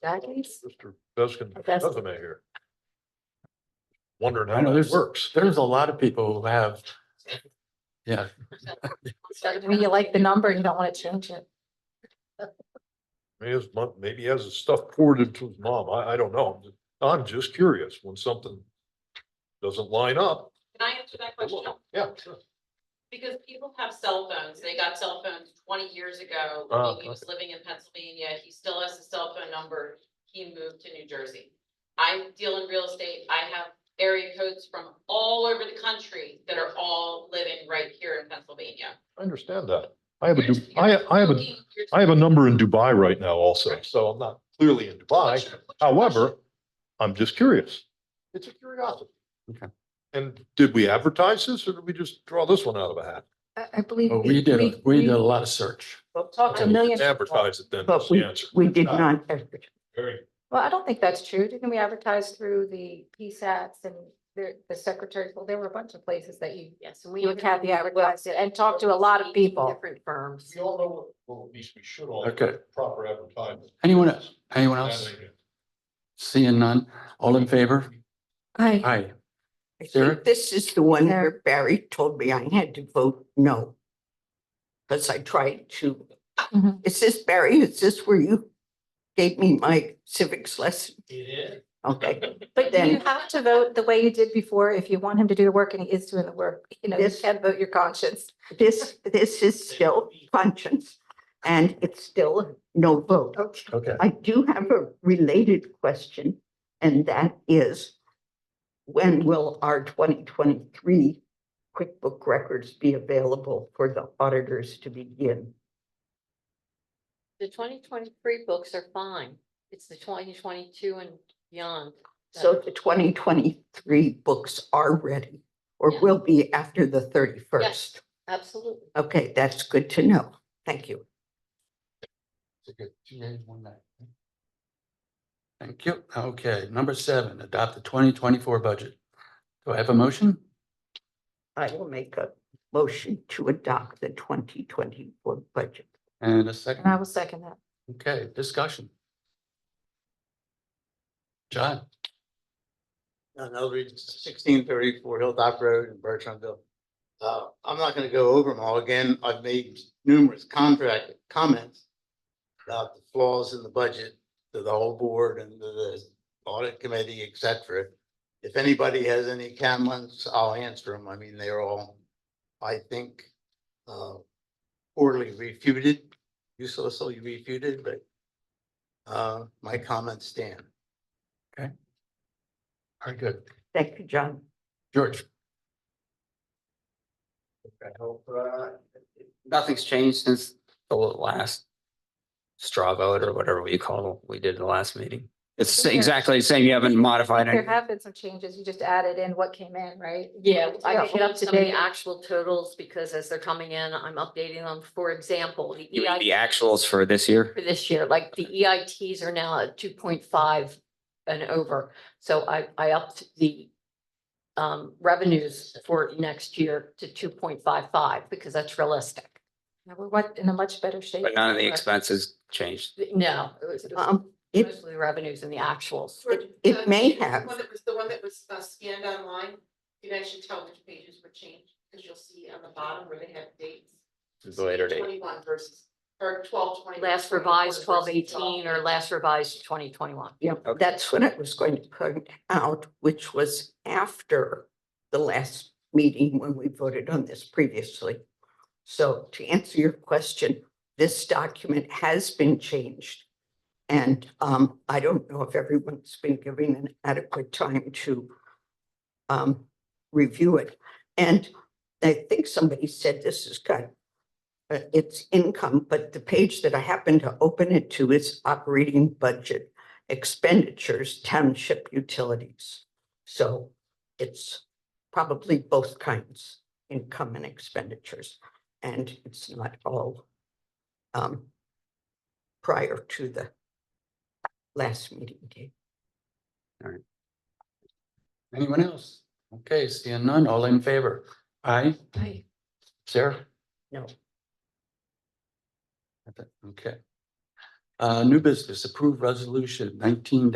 Jackies? Mr. Beskin Beskin. doesn't make here. Wondering I know, how it there's- works. There's a lot of people who have. Yeah, When you like the number and you don't want to change it. Maybe his mom, maybe he has his stuff poured into his mom. I, I don't know. I'm just curious when something doesn't line up. Can I answer that question? Yeah, sure. Because people have cell phones. They got cell phones twenty years ago. Oh, He was living in Pennsylvania. He still has his cell phone number. He moved to New Jersey. I deal in real estate. I have area codes from all over the country that are all living right here in Pennsylvania. I understand that. I have a, You're- Du- I, I have a, looking- you're- I have a number in Dubai right now also, so I'm not clearly in Dubai. What's your- what's your However, question? I'm just curious. It's a curiosity. Okay. And did we advertise this or did we just draw this one out of a hat? I, I believe. but Oh, we did, a- we did a lot of search. Talked to millions. of people. Advertise it then, But that's the answer. We Uh, did not, Very. Well, I don't think that's true. Didn't we advertise through the PSATs and the, the secretaries? Well, there were a bunch of places that you, Yes, you and Kathy advertised it and talked to a lot of people. Different firms. We all know, what- well, at least we should all. Okay. Proper advertising. Anyone else? Anyone else? Seeing none? All in favor? Hi. Aye. I Sarah? think this is the one Sarah. where Barry told me I had to vote no. Because I tried to, Mhm. is this Barry, is this where you gave me my civics lesson? It is. Okay, But you Then- have to vote the way you did before if you want him to do the work and he is doing the work. You know, you Yes. can't vote your conscience. this, this is still conscience and it's still no vote. Okay. I do have a related question, and that is, when will our twenty twenty-three QuickBook records be available for the auditors to begin? The twenty twenty-three books are fine. It's the twenty twenty-two and beyond. that So are- the twenty twenty-three books are ready, or Yeah. will be after the thirty-first? Absolutely. Okay, that's good to know. Thank you. Thank you. Okay, number seven, adopt the twenty twenty-four budget. Do I have a motion? I will make a motion to adopt the twenty twenty-four budget. And a And I second? will second that. Okay, discussion. John? on Eldridge, sixteen thirty-four Hilltop Road in Bertrandville. Uh, I'm not gonna go over them all again. I've made numerous contract comments about the flaws in the budget to the whole board and to the audit committee, et cetera. If anybody has any comments, I'll answer them. I mean, they're all, I think, uh, poorly refuted, uselessly refuted, but uh, my comments stand. Very good. Thank you, John. George? I hope, uh, nothing's changed since the last straw vote or whatever you call, we did the last meeting. It's Okay. exactly the same. You haven't modified There anything. have been some changes. You just added in what came in, right? Yeah, I Yeah, can get up up to some of the date. actual totals because as they're coming in, I'm updating them. For example, the You mean The EIT actuals for this year? for this year, like the EITs are now at two point five and over. So I, I upped the um, revenues for next year to two point five five because that's realistic. Now, We're what, in a much better shape. Uh, But none of the expenses changed. No, it was it was Um, it, mostly revenues and the actuals. It- it The- may the one have. that was- The one that was uh, scanned online, you guys should tell which pages were changed, because you'll see on the bottom where they have dates. The later date. Twenty-one versus, or twelve twenty. Last revised twelve eighteen or last revised twenty twenty-one. Yeah, Okay. that's what I was going to point out, which was after the last meeting when we voted on this previously. So to answer your question, this document has been changed. And um, I don't know if everyone's been given an adequate time to um, review it. And I think somebody said this has got uh, it's income, but the page that I happen to open it to is operating budget expenditures township utilities. So it's probably both kinds, income and expenditures, and it's not all um, prior to the last meeting date. Anyone else? Okay, seeing none, all in favor? Aye. Aye. Sarah? No. Okay. Uh, new business, approved resolution nineteen